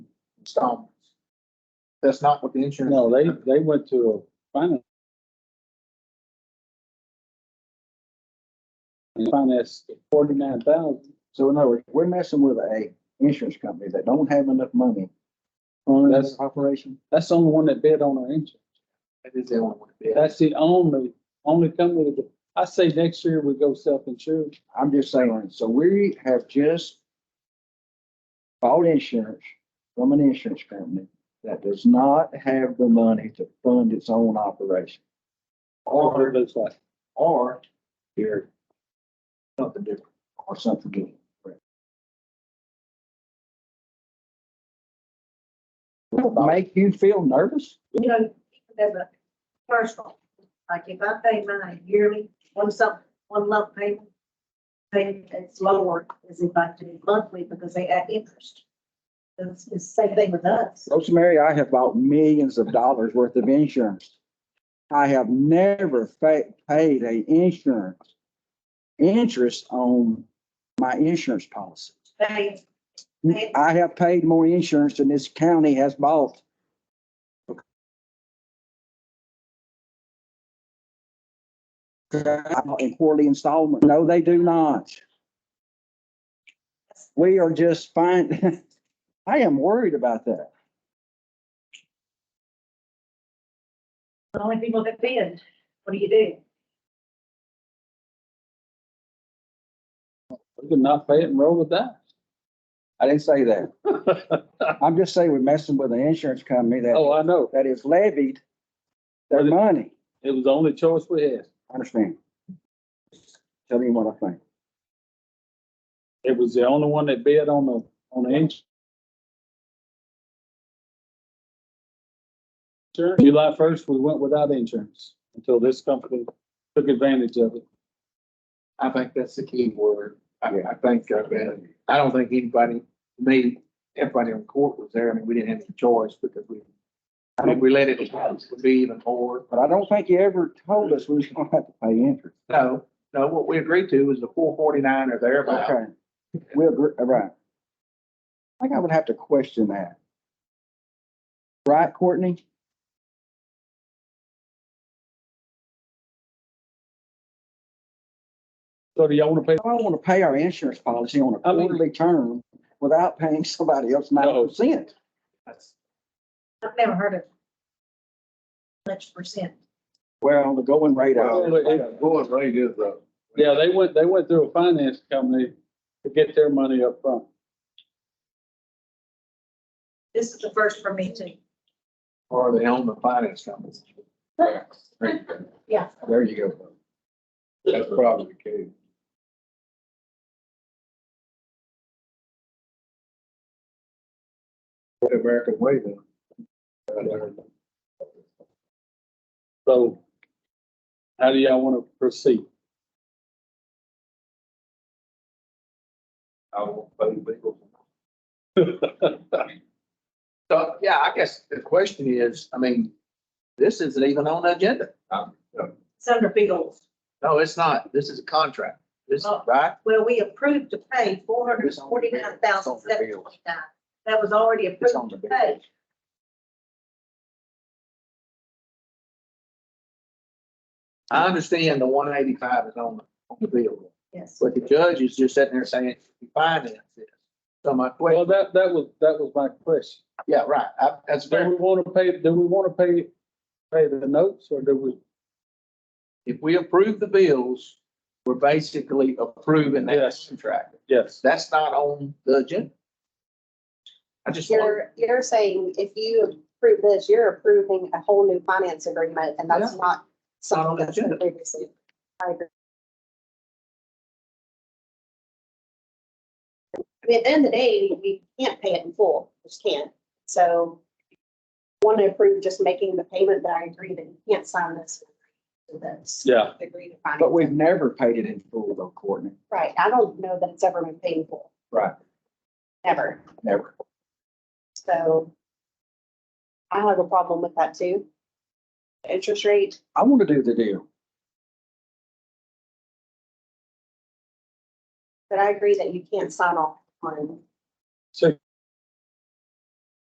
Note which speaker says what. Speaker 1: installments. That's not what the insurance.
Speaker 2: No, they, they went to a finance. And financed forty-nine thousand.
Speaker 3: So in other words, we're messing with a insurance company that don't have enough money on
Speaker 2: That's-
Speaker 3: this operation.
Speaker 2: That's the only one that bid on our insurance.
Speaker 1: That is the only one.
Speaker 2: That's the only, only company that, I say next year we go self-insured.
Speaker 3: I'm just saying, so we have just bought insurance from an insurance company that does not have the money to fund its own operation.
Speaker 2: Or
Speaker 1: Or,
Speaker 2: it looks like.
Speaker 1: or here, something different.
Speaker 3: or something. good. Will it Make you feel nervous?
Speaker 4: you know, as a personal, like if I pay mine yearly, one some, one lump payment, then it's lower as if I do it monthly because they add interest. It's it's the same thing with us.
Speaker 3: Rosemary, I have bought millions of dollars worth of insurance. I have never fa- paid a insurance, interest on my insurance policy.
Speaker 4: They,
Speaker 3: Mm, I have paid more insurance than this county has bought. In quarterly installment. No, they do not. We are just fine. I am worried about that.
Speaker 4: the only people that bid, what do you do?
Speaker 2: We could not pay it and roll with that.
Speaker 3: I didn't say that. I'm just saying we're messing with an insurance company that,
Speaker 2: Oh, I know.
Speaker 3: that is levied their money.
Speaker 2: It was the only choice we had.
Speaker 3: I understand. Tell me what I think.
Speaker 2: It was the only one that bid on the, on the insurance. July first, we went without insurance until this company took advantage of it.
Speaker 1: I think that's the key word. I,
Speaker 3: Yeah.
Speaker 1: I think, uh, man, I don't think anybody, me, everybody on court was there. I mean, we didn't have any choice because we, I mean, we let it, would be even more.
Speaker 3: But I don't think you ever told us we was gonna have to pay interest.
Speaker 1: No, no, what we agreed to was the four forty-nine or thereabouts.
Speaker 3: Okay. We agree, all right. I think I would have to question that. Right, Courtney?
Speaker 2: So do y'all want to pay?
Speaker 3: I don't wanna pay our insurance policy on a
Speaker 2: I mean-
Speaker 3: quarterly term without paying somebody else nine percent.
Speaker 1: That's-
Speaker 4: I've never heard of much percent.
Speaker 3: Well, the going rate. I-
Speaker 2: Well, it-
Speaker 5: Going rate is up.
Speaker 2: Yeah, they went, they went through a finance company to get their money up front.
Speaker 4: This is the first for me too.
Speaker 1: Or they own the finance companies.
Speaker 4: Yeah.
Speaker 5: There you go. That's probably the case. The American way then.
Speaker 2: So how do y'all want to proceed?
Speaker 5: I will pay legal.
Speaker 1: So, yeah, I guess the question is, I mean, this isn't even on the agenda.
Speaker 5: Um,
Speaker 4: It's under bills.
Speaker 1: No, it's not. This is a contract. This,
Speaker 4: Oh.
Speaker 1: right?
Speaker 4: Well, we approved to pay four hundred forty-nine thousand seven twenty-nine. That was already
Speaker 3: It's on
Speaker 4: approved
Speaker 3: the
Speaker 4: to
Speaker 3: bill.
Speaker 4: pay.
Speaker 1: I understand the one eighty-five is on, the- on the bill.
Speaker 4: Yes.
Speaker 1: But the judge is just sitting there saying, "You finance this. So my
Speaker 2: Well,
Speaker 1: question,
Speaker 2: that, that was, that was my question.
Speaker 1: yeah, right, I, that's
Speaker 2: Do
Speaker 1: very,
Speaker 2: we want to pay, do we want to pay, pay the notes or do we?
Speaker 1: if we approve the bills, we're basically approving that
Speaker 2: Yes.
Speaker 1: contract.
Speaker 2: Yes.
Speaker 1: That's not on the agenda. I just, want-
Speaker 6: You're, you're saying if you approve this, you're approving a whole new finance agreement and that's not
Speaker 1: on
Speaker 6: something
Speaker 1: the
Speaker 6: that's been
Speaker 1: agenda.
Speaker 6: previously. I agree. I mean, at the end of the day, we can't pay it in full, we just can't. So want to approve just making the payment, but I agree that you can't sign this. That's
Speaker 2: Yeah.
Speaker 6: agree to finance.
Speaker 3: But we've never paid it in full though, Courtney.
Speaker 6: Right, I don't know that it's ever been paid in full.
Speaker 3: Right.
Speaker 6: Never.
Speaker 3: Never.
Speaker 6: So I have a problem with that too. The Interest rate,
Speaker 3: I want to do the deal.
Speaker 6: but I agree that you can't sign off on
Speaker 2: So